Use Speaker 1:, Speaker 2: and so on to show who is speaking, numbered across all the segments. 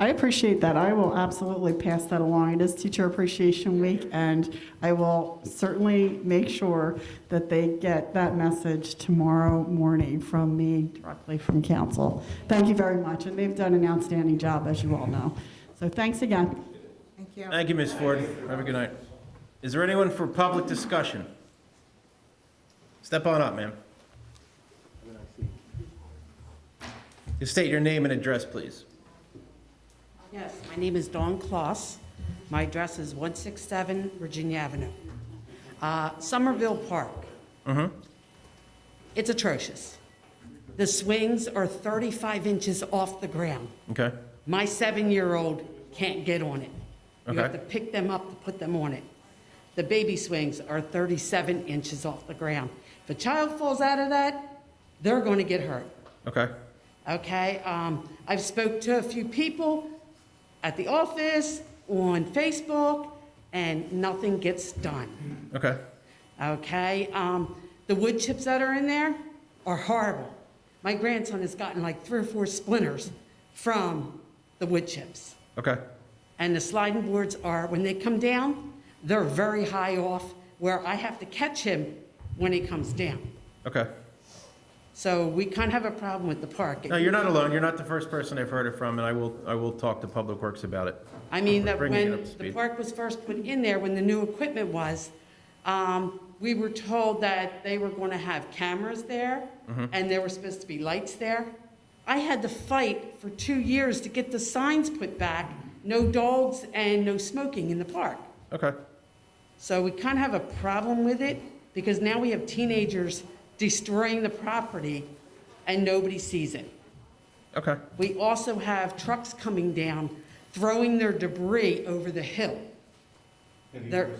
Speaker 1: I appreciate that. I will absolutely pass that along. It is Teacher Appreciation Week, and I will certainly make sure that they get that message tomorrow morning from me directly from council. Thank you very much, and they've done an outstanding job, as you all know. So thanks again.
Speaker 2: Thank you.
Speaker 3: Thank you, Ms. Ford. Have a good night. Is there anyone for public discussion? Step on up, ma'am. Just state your name and address, please.
Speaker 4: Yes, my name is Dawn Kloss. My address is 167 Virginia Avenue. Uh, Somerville Park. It's atrocious. The swings are 35 inches off the ground.
Speaker 3: Okay,
Speaker 4: My seven-year-old can't get on it. You have
Speaker 3: Okay.
Speaker 4: to pick them up to put them on it. The baby swings are 37 inches off the ground. If a child falls out of that, they're going to get hurt
Speaker 3: okay,
Speaker 4: okay? Um, I've spoke to a few people at the office, on Facebook, and nothing gets done,
Speaker 3: okay,
Speaker 4: okay? Um, the wood chips that are in there are horrible. My grandson has gotten like three or four splinters from the wood chips.
Speaker 3: okay,
Speaker 4: And the sliding boards are, when they come down, they're very high off where I have to catch him when he comes down.
Speaker 3: okay.
Speaker 4: So we kind of have a problem with the park.
Speaker 3: No, you're not alone. You're not the first person I've heard it from, and I will, I will talk to Public Works about it.
Speaker 4: I mean, that
Speaker 3: Bringing it up
Speaker 4: when
Speaker 3: to
Speaker 4: the
Speaker 3: speed.
Speaker 4: park was first put in there, when the new equipment was, um, we were told that they were going to have cameras there,
Speaker 3: Mm-hmm.
Speaker 4: and there were supposed to be lights there. I had to fight for two years to get the signs put back, no dogs and no smoking in the park.
Speaker 3: Okay,
Speaker 4: So we kind of have a problem with it, because now we have teenagers destroying the property, and nobody sees it.
Speaker 3: okay,
Speaker 4: We also have trucks coming down, throwing their debris over the hill. They're-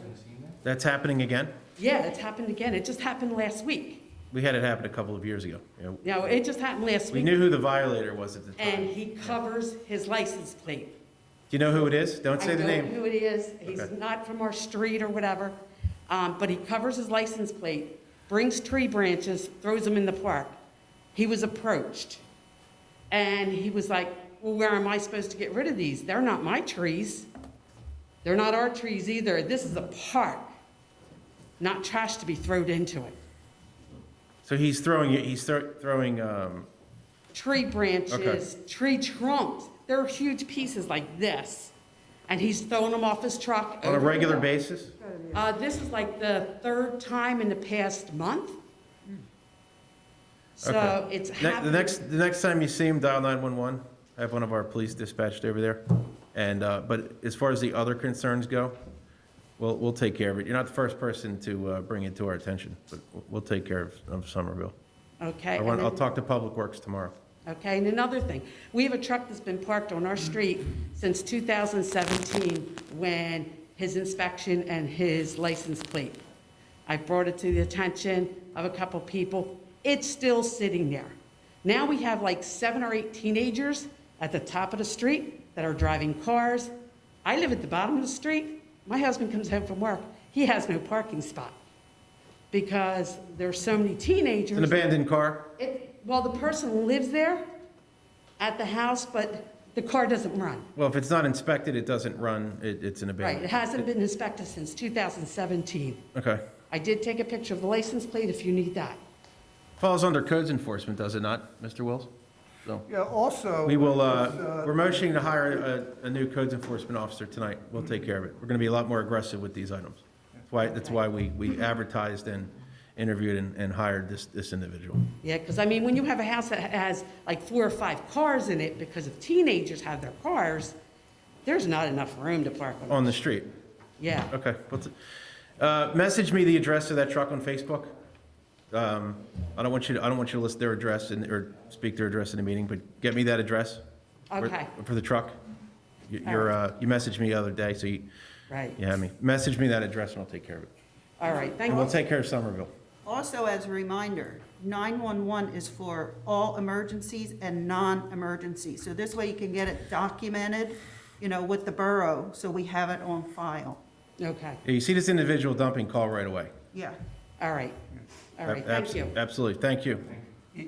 Speaker 3: that's happening again?
Speaker 4: Yeah, it's happened again. It just happened last week.
Speaker 3: We had it happen a couple of years ago. Yeah.
Speaker 4: No, it just happened last
Speaker 3: We
Speaker 4: week.
Speaker 3: knew who the violator was at the time.
Speaker 4: And
Speaker 3: Do
Speaker 4: he covers his license plate.
Speaker 3: you know who it is? Don't say the
Speaker 4: I don't
Speaker 3: name.
Speaker 4: know who it is. He's
Speaker 3: Okay.
Speaker 4: not from our street or whatever. Um, but he covers his license plate, brings tree branches, throws them in the park. He was approached. And he was like, well, where am I supposed to get rid of these? They're not my trees. They're not our trees either. This is a park, not trash to be thrown into it.
Speaker 3: So he's throwing, he's thro- throwing, um,
Speaker 4: tree branches, tree trunks. They're huge pieces like this. And he's throwing them off his truck.
Speaker 3: on a
Speaker 4: over-
Speaker 3: regular basis?
Speaker 4: Uh, this is like the third time in the past month. So
Speaker 3: Hmm. Okay.
Speaker 4: it's
Speaker 3: Ne-
Speaker 4: happening.
Speaker 3: The next, the next time you see him, dial 911. I have one of our police dispatched over there. And, uh, but as far as the other concerns go, we'll, we'll take care of it. You're not the first person to uh, bring it to our attention, but we'll- we'll take care of- of Somerville.
Speaker 4: Okay.
Speaker 3: I
Speaker 4: and
Speaker 3: want, I'll
Speaker 4: then-
Speaker 3: talk to Public Works tomorrow.
Speaker 4: Okay, and another thing, we have a truck that's been parked on our street since 2017 when his inspection and his license plate. I brought it to the attention of a couple people. It's still sitting there. Now we have like seven or eight teenagers at the top of the street that are driving cars. I live at the bottom of the street. My husband comes home from work. He has no parking spot because there's so many teenagers.
Speaker 3: It's an abandoned car?
Speaker 4: It, well, the person lives there at the house, but the car doesn't run.
Speaker 3: Well, if it's not inspected, it doesn't run. It, it's an
Speaker 4: Right, it
Speaker 3: abandoned.
Speaker 4: hasn't been inspected since 2017.
Speaker 3: Okay.
Speaker 4: I did take a picture of the license plate if you need that.
Speaker 3: Falls under codes enforcement, does it not, Mr. Wills? So,
Speaker 5: Yeah, also.
Speaker 3: we will,
Speaker 5: it's,
Speaker 3: uh, we're motioning to hire a, a new codes enforcement officer tonight. We'll take care of it. We're gonna be a lot more aggressive with these items. That's why, that's why we, we advertised and interviewed and, and hired this, this individual.
Speaker 4: Yeah, because I mean, when you have a house that has like four or five cars in it because if teenagers have their cars, there's not enough room to park them.
Speaker 3: On the street.
Speaker 4: Yeah,
Speaker 3: Okay. We'll t- Uh, message me the address of that truck on Facebook. Um, I don't want you, to- I don't want you to list their address and, or speak their address in a meeting, but get me that address. for-
Speaker 4: Okay.
Speaker 3: For the truck. You- You're, uh, you messaged me the other day, so you,
Speaker 4: right.
Speaker 3: you have me. Message me that address and I'll take care of it.
Speaker 4: All right, thank
Speaker 3: And we'll
Speaker 4: you.
Speaker 3: take care of Somerville.
Speaker 2: Also, as a reminder, 911 is for all emergencies and non-emergencies. So this way you can get it documented, you know, with the borough, so we have it on file.
Speaker 4: Okay,
Speaker 3: Yeah, You see this individual dumping, call right away.
Speaker 2: Yeah.
Speaker 4: all right, all right,
Speaker 3: Ab-
Speaker 4: thank you.
Speaker 3: Absolutely, thank you.